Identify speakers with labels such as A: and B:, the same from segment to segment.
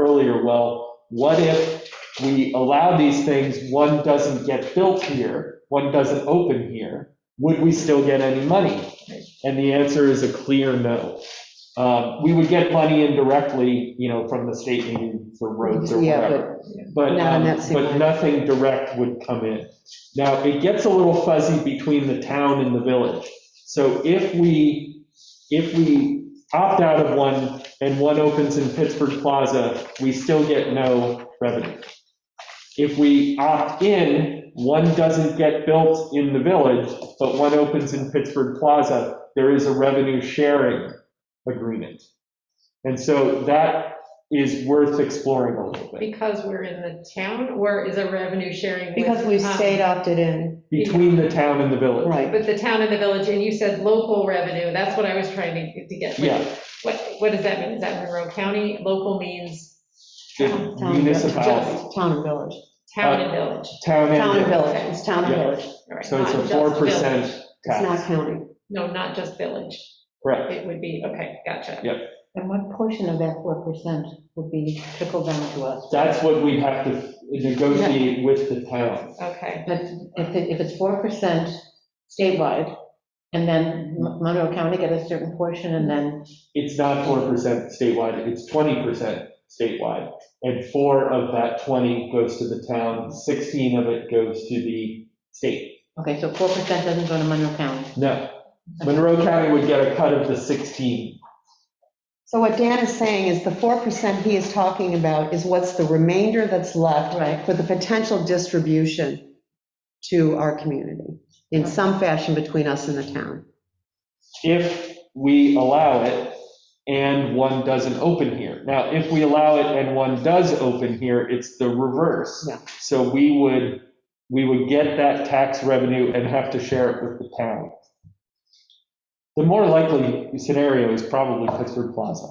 A: earlier, well, what if we allow these things, one doesn't get built here, one doesn't open here, would we still get any money? And the answer is a clear no. Um, We would get money indirectly, you know, from the state maybe for roads or
B: Yeah,
A: whatever.
B: but
A: But,
B: Not in
A: um,
B: that same
A: but
B: line.
A: nothing direct would come in. Now, it gets a little fuzzy between the town and the village. So if we, if we opt out of one and one opens in Pittsburgh Plaza, we still get no revenue. If we opt in, one doesn't get built in the village, but one opens in Pittsburgh Plaza, there is a revenue sharing agreement. And so that is worth exploring a little bit.
C: Because we're in the town, or is a revenue sharing? with,
B: Because we
C: um,
B: stayed opted in,
A: Between the town and the village.
B: right.
C: With the town and the village, and you said local revenue, that's what I was trying to to get.
A: Yeah,
C: What, what does that mean? Is that Monroe County? Local means
A: the
B: Town-
A: municipality,
B: just Town and village.
C: town and village.
A: town
B: Town and
A: and village.
B: village, it's town and
A: Yeah.
B: village.
C: All right,
A: Uh, So it's
C: not
A: a
C: just
A: four percent
C: village.
B: It's not
A: tax.
B: county.
C: No, not just village.
A: Correct.
C: It would be, okay, gotcha.
A: Yeah.
D: And what portion of that 4% would be trickled down to us?
A: That's what we have to negotiate with the town.
C: Okay,
D: But if it- if it's 4% statewide, and then Mon- Monroe County get a certain portion, and then,
A: It's not four percent statewide, it's twenty percent statewide. And four of that twenty goes to the town, sixteen of it goes to the state.
D: okay, so 4% doesn't go to Monroe County.
A: No, Monroe County would get a cut of the sixteen.
B: So what Dan is saying is the 4% he is talking about is what's the remainder that's left
D: Right.
B: for the potential distribution to our community in some fashion between us and the town.
A: if we allow it and one doesn't open here. Now, if we allow it and one does open here, it's the reverse.
B: Yeah.
A: So we would, we would get that tax revenue and have to share it with the town. The more likely scenario is probably Pittsburgh Plaza,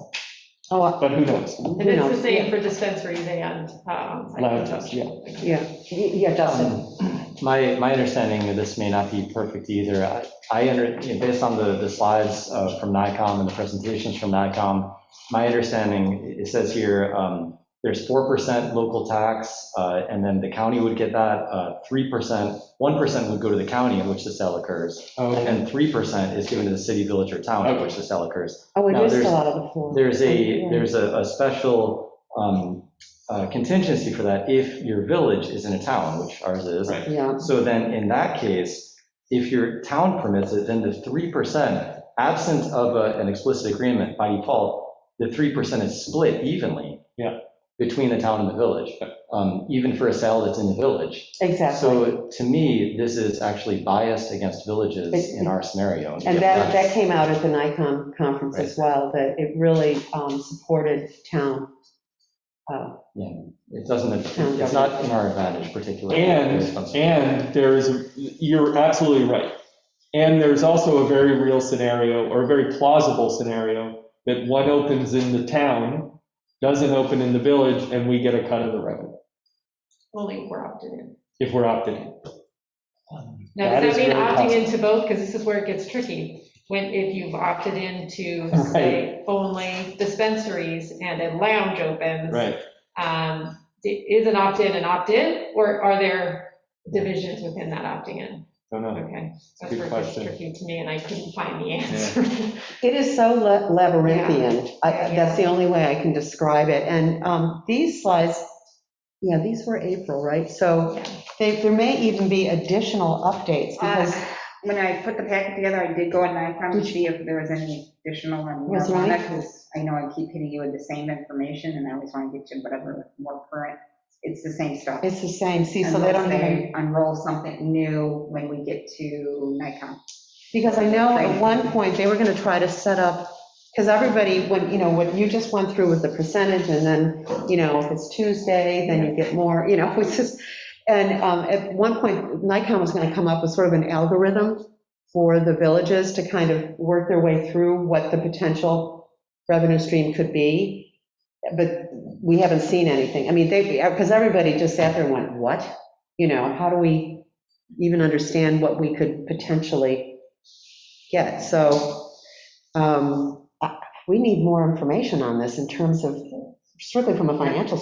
B: Oh, uh,
A: but who knows?
B: who
C: and it's the
B: knows?
C: same for dispensaries and. um, like-
A: Lounges, yeah.
B: Yeah, yeah, Dustin.
E: Um, My, my understanding of this may not be perfect either. I- I, under- you know, based on the, the slides uh, from NICOM and the presentations from NICOM, my understanding, it says here, um, there's 4% local tax, uh, and then the county would get that, uh, 3%, 1% would go to the county in which the sale occurs,
A: Um,
E: and 3% is given to the city, village, or town in which the sale occurs.
B: Oh, it
E: No,
B: is
E: there's-
B: still out of the four.
E: There's
B: Yeah.
E: a, there's a, a special um, uh, contingency for that if your village is in a town, which ours is.
A: Right.
B: Yeah,
E: So then in that case, if your town permits it, then the 3%, absent of a- an explicit agreement by default, the 3% is split evenly.
A: Yeah.
E: Between the town and the village, um, even for a sale that's in the village.
B: exactly.
E: So to me, this is actually biased against villages in our scenario.
B: And that, that came out at the NICOM conference as well, that it really um, supported town.
E: It doesn't, it's not in our advantage particularly.
A: And, and there is, a- you're absolutely right. And there's also a very real scenario, or a very plausible scenario, that one opens in the town, doesn't open in the village, and we get a cut of the revenue
C: Only we're opted in.
A: if we're opted in.
C: Now,
A: That is
C: does that mean
A: very
C: opting
A: possible.
C: into both? Because this is where it gets tricky. When, if you've opted into, say, only dispensaries and a lounge opens.
A: Right.
C: um, Is an opt-in an opt-in, or are there divisions within that opting in?
A: Don't know.
C: Okay. that's
A: Good
C: where it gets
A: question.
C: Tricky to me, and I couldn't find the answer.
B: It is so la- labyrinthian. I-
C: Yeah.
B: That's the only way I can describe it. And um, these slides, yeah, these were April, right? So
C: Yeah.
B: they- there may even be additional updates because
F: Uh, When I put the packet together, I did go on Nikon to see if there was any additional on
B: Was there
F: marijuana, because I know I keep hitting you with the same information, and I always want to get you whatever more current. It's the same stuff.
B: it's the same, see, so they don't
F: Unless
B: have,
F: Unroll something new when we get to Nikon.
B: because I know at one point, they were going to try to set up, because everybody, when, you know, what you just went through with the percentage, and then, you know, if it's Tuesday, then you get more, you know, it's just, and um, at one point, Nikon was going to come up with sort of an algorithm for the villages to kind of work their way through what the potential revenue stream could be, but we haven't seen anything. I mean, they, because everybody just sat there and went, what? You know, how do we even understand what we could potentially get? So um, I- we need more information on this in terms of, strictly from a financial